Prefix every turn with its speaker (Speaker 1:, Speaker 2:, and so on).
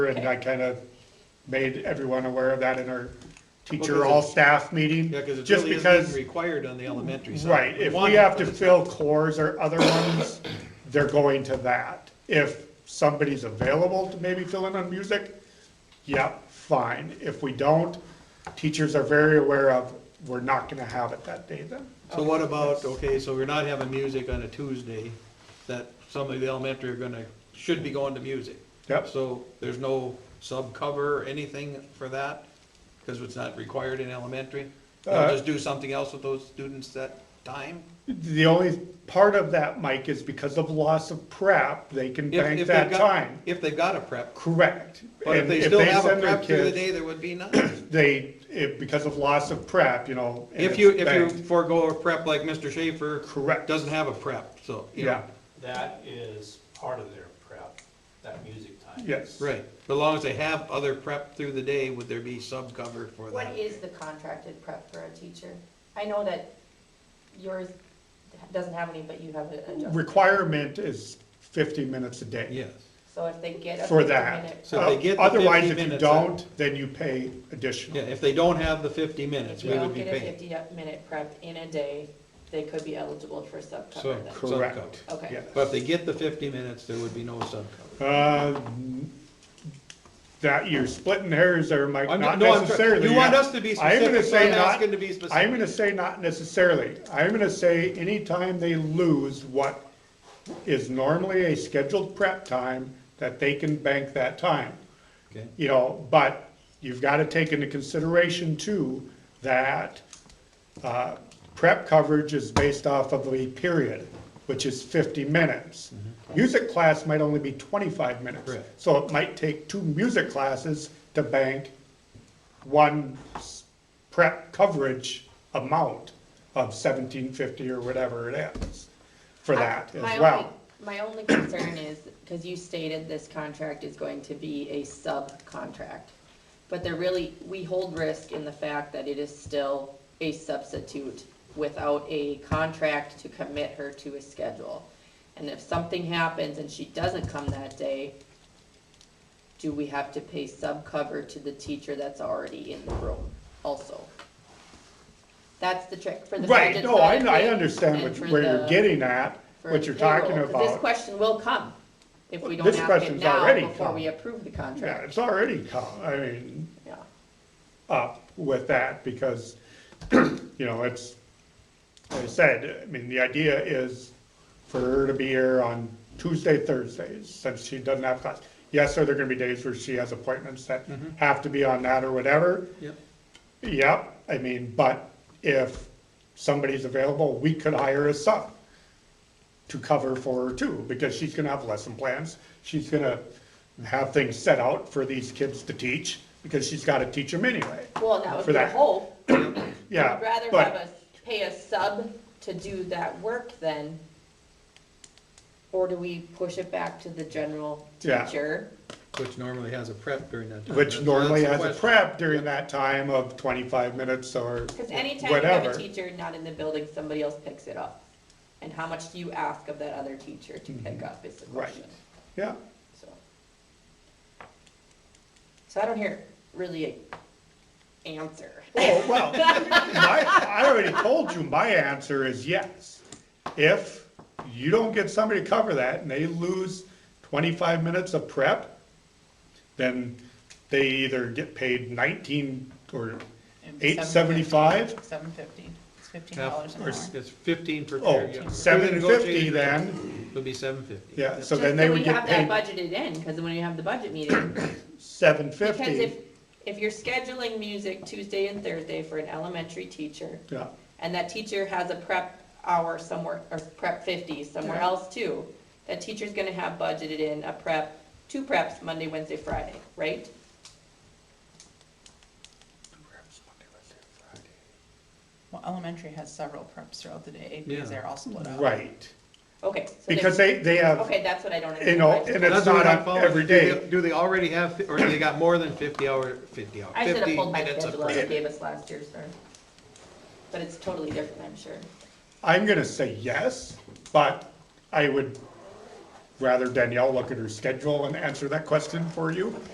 Speaker 1: and I kind of made everyone aware of that in our teacher,
Speaker 2: Well, 'cause
Speaker 1: all
Speaker 2: it's-
Speaker 1: staff meeting.
Speaker 2: Yeah, because it
Speaker 1: just
Speaker 2: really isn't
Speaker 1: because,
Speaker 2: required on the elementary side.
Speaker 1: Right, if we
Speaker 2: want it,
Speaker 1: have to
Speaker 2: but it's-
Speaker 1: fill cores or other ones, they're going to that. If somebody's available to maybe fill in on music, yeah, fine. If we don't, teachers are very aware of, we're not gonna have it that day then.
Speaker 2: So what about, okay, so we're not having music on a Tuesday, that some of the elementary are gonna, should be going to music.
Speaker 1: Yep.
Speaker 2: So there's no sub cover or anything for that, because it's not required in elementary? They'll
Speaker 1: Uh,
Speaker 2: just do something else with those students that time?
Speaker 1: The only part of that, Mike, is because of loss of prep, they can
Speaker 2: If-
Speaker 1: bank
Speaker 2: if they've
Speaker 1: that
Speaker 2: got-
Speaker 1: time.
Speaker 2: If they've got a prep,
Speaker 1: Correct.
Speaker 2: but if
Speaker 1: And
Speaker 2: they still have a
Speaker 1: send their
Speaker 2: prep through the
Speaker 1: kids-
Speaker 2: day, there would be none.
Speaker 1: they, if, because of loss of prep, you know. and
Speaker 2: If
Speaker 1: it's
Speaker 2: you, if you
Speaker 1: banked.
Speaker 2: forego a prep like Mr. Schaefer.
Speaker 1: Correct.
Speaker 2: Doesn't have a prep, so, you know.
Speaker 1: Yeah,
Speaker 3: That is part of their prep, that music time.
Speaker 1: yes.
Speaker 2: Right, but as long as they have other prep through the day, would there be sub cover for that?
Speaker 4: What is the contracted prep for a teacher? I know that yours doesn't have any, but you have it adjusted.
Speaker 1: Requirement is fifty minutes a day.
Speaker 2: Yes,
Speaker 4: So if they get a
Speaker 1: For
Speaker 4: fifteen-minute
Speaker 1: that.
Speaker 2: So if they get the
Speaker 1: Otherwise,
Speaker 2: 50
Speaker 1: if you
Speaker 2: minutes, uh,
Speaker 1: don't, then you pay additional.
Speaker 2: yeah, if they don't have the fifty minutes,
Speaker 4: If you
Speaker 2: we would
Speaker 4: don't
Speaker 2: be
Speaker 4: get a
Speaker 2: paying.
Speaker 4: fifty-minute prep in a day, they could be eligible for sub cover
Speaker 2: So,
Speaker 4: then.
Speaker 2: sub cover.
Speaker 1: Correct.
Speaker 4: Okay.
Speaker 1: Yes.
Speaker 2: But if they get the fifty minutes, there would be no sub cover.
Speaker 1: Uh, That, you're splitting hairs there, Mike,
Speaker 2: I'm-
Speaker 1: not
Speaker 2: no, I'm try-
Speaker 1: necessarily.
Speaker 2: you want us to be
Speaker 1: I'm gonna
Speaker 2: specific,
Speaker 1: say
Speaker 2: so I'm
Speaker 1: not-
Speaker 2: asking to be specific.
Speaker 1: I'm gonna say not necessarily. I'm gonna say anytime they lose what is normally a scheduled prep time, that they can bank that time.
Speaker 2: Okay.
Speaker 1: you know, but you've got to take into consideration too, that uh, prep coverage is based off of a period, which is fifty minutes. Music class might only be twenty-five minutes.
Speaker 2: Correct.
Speaker 1: So it might take two music classes to bank one s- prep coverage amount of seventeen fifty or whatever it is for that
Speaker 4: I- my
Speaker 1: as well.
Speaker 4: only- My only concern is, because you stated this contract is going to be a sub-contract, but there really, we hold risk in the fact that it is still a substitute without a contract to commit her to a schedule. And if something happens and she doesn't come that day, do we have to pay sub-cover to the teacher that's already in the room also? That's the trick for the
Speaker 1: Right,
Speaker 4: budget
Speaker 1: no, I,
Speaker 4: side of
Speaker 1: I
Speaker 4: things
Speaker 1: understand
Speaker 4: and
Speaker 1: what,
Speaker 4: for
Speaker 1: where you're
Speaker 4: the-
Speaker 1: getting at,
Speaker 4: for
Speaker 1: what
Speaker 4: the
Speaker 1: you're talking
Speaker 4: payroll, 'cause This
Speaker 1: about.
Speaker 4: question will come if we don't
Speaker 1: This
Speaker 4: ask it
Speaker 1: question's
Speaker 4: now
Speaker 1: already
Speaker 4: before
Speaker 1: come.
Speaker 4: we approve the
Speaker 1: Yeah,
Speaker 4: contract.
Speaker 1: it's already come, I mean,
Speaker 4: Yeah.
Speaker 1: up with that because, you know, it's, like I said, I mean, the idea is for her to be here on Tuesday, Thursdays, since she doesn't have class. Yes, are there gonna be days where she has appointments that have to be on that or whatever?
Speaker 2: Yep.
Speaker 1: Yep, I mean, but if somebody's available, we could hire a sub to cover for her too, because she's gonna have lesson plans. She's gonna have things set out for these kids to teach, because she's gotta teach them anyway.
Speaker 4: Well, and that would
Speaker 1: For
Speaker 4: be the
Speaker 1: that.
Speaker 4: hope.
Speaker 1: Yeah,
Speaker 4: I'd rather
Speaker 1: but-
Speaker 4: have us pay a sub to do that work then. Or do we push it back to the general
Speaker 1: Yeah.
Speaker 4: teacher?
Speaker 2: Which normally has a prep during that time.
Speaker 1: Which
Speaker 2: That's-
Speaker 1: normally
Speaker 2: that's
Speaker 1: has
Speaker 2: the
Speaker 1: a
Speaker 2: question.
Speaker 1: prep during that time of twenty-five minutes or
Speaker 4: Cause anytime you have a
Speaker 1: whatever.
Speaker 4: teacher not in the building, somebody else picks it up. And how much do you ask of that other teacher to pick up is the
Speaker 1: Mm-hmm. Right.
Speaker 4: question.
Speaker 1: Yeah,
Speaker 4: So. So I don't hear really a answer.
Speaker 1: oh, well, my, I already told you, my answer is yes. If you don't get somebody to cover that and they lose twenty-five minutes of prep, then they either get paid nineteen or eight seventy-five
Speaker 5: Seven fifty, it's fifteen dollars
Speaker 2: Half-
Speaker 5: an
Speaker 2: or
Speaker 5: hour.
Speaker 2: s- It's fifteen per
Speaker 1: Oh,
Speaker 2: period. yeah. We
Speaker 1: seven fifty
Speaker 2: negotiated that.
Speaker 1: then,
Speaker 2: It would be seven fifty.
Speaker 1: yeah, so
Speaker 4: Just
Speaker 1: then they
Speaker 4: so
Speaker 1: would get
Speaker 4: We have
Speaker 1: paid
Speaker 4: that budgeted in, cause when you have the budget meeting,
Speaker 1: seven
Speaker 4: because if,
Speaker 1: fifty.
Speaker 4: if you're scheduling music Tuesday and Thursday for an elementary teacher,
Speaker 1: Yeah,
Speaker 4: and that teacher has a prep hour somewhere, or prep fifty somewhere
Speaker 1: Yeah.
Speaker 4: else too, that teacher's gonna have budgeted in a prep, two preps, Monday, Wednesday, Friday, right?
Speaker 5: Well, elementary has several preps throughout the day because
Speaker 2: Yeah.
Speaker 5: they're all split up.
Speaker 1: right,
Speaker 4: Okay. so there's-
Speaker 1: because they, they have.
Speaker 4: Okay, that's what I don't.
Speaker 1: You know,
Speaker 4: understand.
Speaker 1: and it's not on every day.
Speaker 2: Do they already have, fi- or they got more than fifty hour, fifty hour,
Speaker 4: I should have
Speaker 2: fifty
Speaker 4: pulled my
Speaker 2: minutes of
Speaker 4: schedule out
Speaker 2: prep?
Speaker 4: and gave us last year's, sorry. But it's totally different, I'm sure.
Speaker 1: I'm gonna say yes, but I would rather Danielle look at her schedule and answer that question for you.